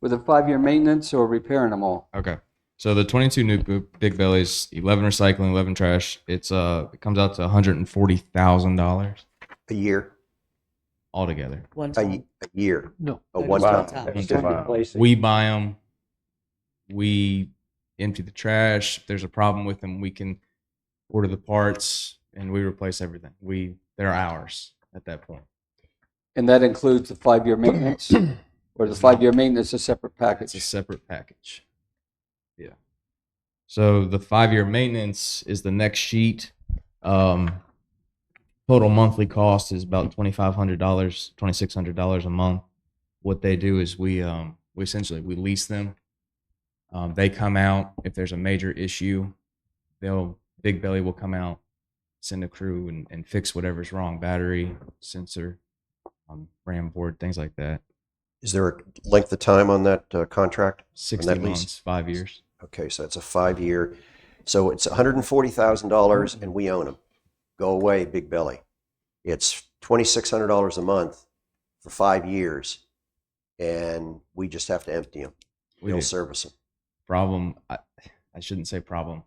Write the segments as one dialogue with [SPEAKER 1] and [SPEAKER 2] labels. [SPEAKER 1] with a five-year maintenance or repairing them all.
[SPEAKER 2] Okay. So the 22 new bo- big bellies, 11 recycling, 11 trash. It's uh, it comes out to 140 thousand dollars
[SPEAKER 3] A year,
[SPEAKER 2] altogether.
[SPEAKER 4] One
[SPEAKER 3] a,
[SPEAKER 4] time.
[SPEAKER 3] y- a year.
[SPEAKER 5] No.
[SPEAKER 3] A
[SPEAKER 4] That
[SPEAKER 3] one
[SPEAKER 4] is
[SPEAKER 3] time.
[SPEAKER 4] time.
[SPEAKER 3] It's
[SPEAKER 2] Wow.
[SPEAKER 3] different.
[SPEAKER 2] uh, We buy them. We empty the trash. If there's a problem with them, we can order the parts and we replace everything. We they're ours at that point.
[SPEAKER 1] And that includes the five-year maintenance, or the five-year maintenance is a separate
[SPEAKER 2] It's a
[SPEAKER 1] package.
[SPEAKER 2] separate package. Yeah. So the five year maintenance is the next sheet. Um, total monthly cost is about twenty five hundred dollars, twenty six hundred dollars a month. What they do is we um we essentially we lease them. Um, they come out if there's a major issue, they'll Big Belly will come out, send a crew and, and fix whatever's wrong, battery, sensor, um, RAM board, things like that.
[SPEAKER 3] Is there a length of time on that uh, contract?
[SPEAKER 2] Sixty
[SPEAKER 3] that lease?
[SPEAKER 2] months, five years.
[SPEAKER 3] Okay, so it's a five year. So it's $140,000 and we own them. Go away, Big Belly. It's $2,600 a month for five years and we just have to empty them.
[SPEAKER 2] We
[SPEAKER 3] We'll
[SPEAKER 2] do.
[SPEAKER 3] service them.
[SPEAKER 2] problem I, I shouldn't say problem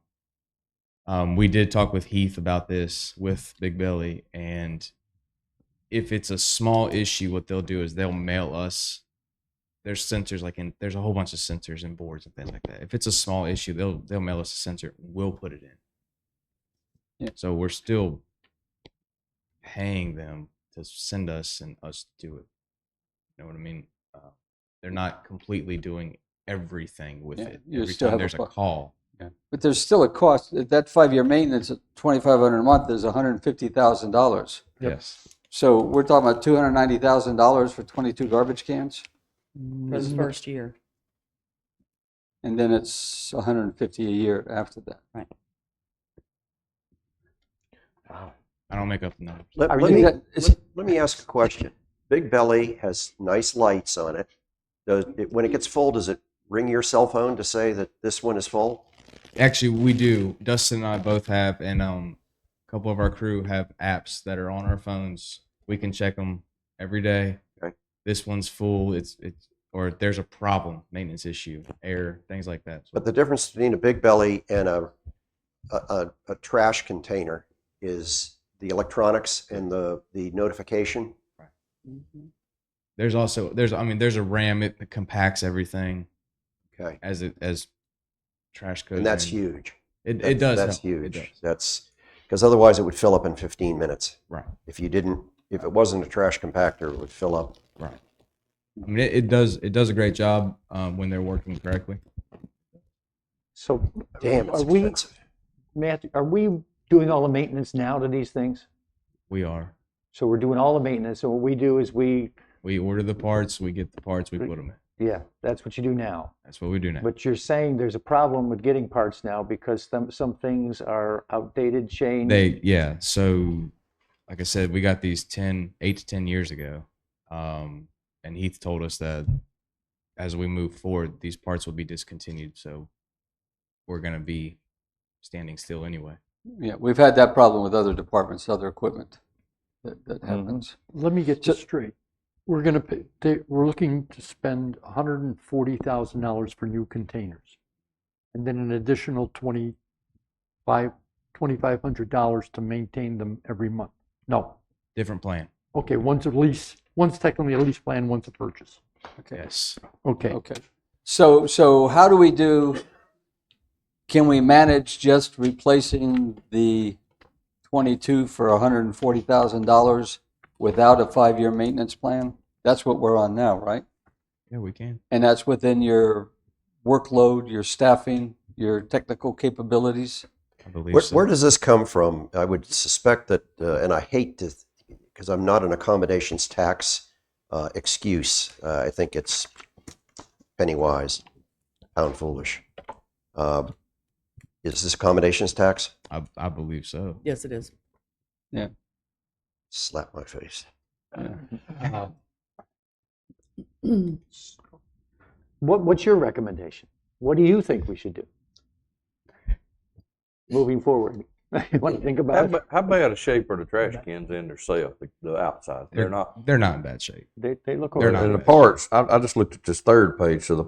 [SPEAKER 2] um, we did talk with heath about this with big belly and if it's a small issue what they'll do is they'll mail us there's sensors like in there's a whole bunch of sensors and boards and things like that if it's a small issue they'll they'll mail us a sensor we'll put it in
[SPEAKER 1] Yeah.
[SPEAKER 2] so we're still paying them to send us and us do it you know what i mean uh, they're not completely doing everything with
[SPEAKER 1] Yeah,
[SPEAKER 2] it.
[SPEAKER 1] you
[SPEAKER 2] Every
[SPEAKER 1] still have
[SPEAKER 2] time
[SPEAKER 1] a
[SPEAKER 2] there's a,
[SPEAKER 1] bu-
[SPEAKER 2] call.
[SPEAKER 1] But there's still a cost, That- that five-year maintenance, at 2,500 a month is $150,000.
[SPEAKER 5] Yep.
[SPEAKER 2] Yes.
[SPEAKER 1] So we're talking about $290,000 for 22 garbage cans,
[SPEAKER 4] For the first year.
[SPEAKER 1] and then it's 150 a year after that.
[SPEAKER 2] I don't make up the numbers.
[SPEAKER 3] Let,
[SPEAKER 5] I
[SPEAKER 3] let
[SPEAKER 5] mean,
[SPEAKER 3] me,
[SPEAKER 1] that- it's-
[SPEAKER 3] let, let me ask a question. Big Belly has nice lights on it. Does it, when it gets full, does it ring your cell phone to say that this one is full?
[SPEAKER 2] Actually, we do. Dustin and I both have, and um, a couple of our crew have apps that are on our phones. We can check them every day.
[SPEAKER 3] Okay.
[SPEAKER 2] This one's full. It's it's or there's a problem, maintenance issue, error, things like that.
[SPEAKER 3] But the difference between a Big Belly and a a, a, a trash container is the electronics and the, the notification.
[SPEAKER 4] Mhm.
[SPEAKER 2] there's also there's I mean there's a RAM. It compacts everything
[SPEAKER 3] Okay,
[SPEAKER 2] as it as trash goes.
[SPEAKER 3] and that's
[SPEAKER 2] in.
[SPEAKER 3] huge.
[SPEAKER 2] It,
[SPEAKER 3] That's-
[SPEAKER 2] it does.
[SPEAKER 3] That's
[SPEAKER 2] help. It
[SPEAKER 3] huge.
[SPEAKER 2] does.
[SPEAKER 3] That's because otherwise it would fill up in 15 minutes.
[SPEAKER 2] Right.
[SPEAKER 3] If you didn't, if it wasn't a trash compactor, it would fill up.
[SPEAKER 2] Right. I mean, it, it does it does a great job um, when they're working correctly.
[SPEAKER 5] So,
[SPEAKER 3] Damn, it's
[SPEAKER 5] Are we-
[SPEAKER 3] expensive.
[SPEAKER 5] Matthew, are we doing all the maintenance now to these things?
[SPEAKER 2] We are.
[SPEAKER 5] So we're doing all the maintenance. So what we do is we,
[SPEAKER 2] We order the parts, we get the parts, we put them in.
[SPEAKER 5] yeah, that's what you do now.
[SPEAKER 2] That's what we do now.
[SPEAKER 5] But you're saying there's a problem with getting parts now because some, some things are outdated, changed.
[SPEAKER 2] They yeah. So like I said, we got these 10, 8 to ten years ago, um, and Heath told us that as we move forward, these parts will be discontinued. So we're gonna be standing still anyway.
[SPEAKER 1] Yeah, we've had that problem with other departments, other equipment. That that
[SPEAKER 2] Mm-hmm.
[SPEAKER 1] happens.
[SPEAKER 6] Let me get
[SPEAKER 1] So-
[SPEAKER 6] this straight. We're gonna, pay- they- we're looking to spend hundred and forty thousand dollars for new containers. And then an additional twenty-five, twenty-five hundred dollars to maintain them every month. No,
[SPEAKER 2] Different plan.
[SPEAKER 6] okay, one's a lease, one's technically a lease plan, one's a purchase.
[SPEAKER 1] Okay.
[SPEAKER 2] Yes.
[SPEAKER 6] Okay,
[SPEAKER 1] Okay. So, so how do we do, can we manage just replacing the 22 for $140,000 without a five-year maintenance plan? That's what we're on now, right?
[SPEAKER 2] Yeah, we can.
[SPEAKER 1] And that's within your workload, your staffing, your technical capabilities?
[SPEAKER 2] I believe
[SPEAKER 3] Where,
[SPEAKER 2] so.
[SPEAKER 3] where does this come from? I would suspect that, uh, and I hate to, because I'm not an accommodations tax uh, excuse. Uh, I think it's penny wise, pound foolish. Uh, is this accommodations tax?
[SPEAKER 2] I, I believe so.
[SPEAKER 4] Yes, it is.
[SPEAKER 3] Slap my face.
[SPEAKER 5] What, what's your recommendation? What do you think we should do? Moving forward. You want to think
[SPEAKER 7] How,
[SPEAKER 5] about it?
[SPEAKER 7] ba- how bad a shape are the trash cans in themselves, the, the outside? They're not.
[SPEAKER 2] They're not in bad shape.
[SPEAKER 5] They, they look.
[SPEAKER 2] They're
[SPEAKER 5] over-
[SPEAKER 2] not
[SPEAKER 7] And the
[SPEAKER 2] bad.
[SPEAKER 7] parts, I, I just looked at this third page, so the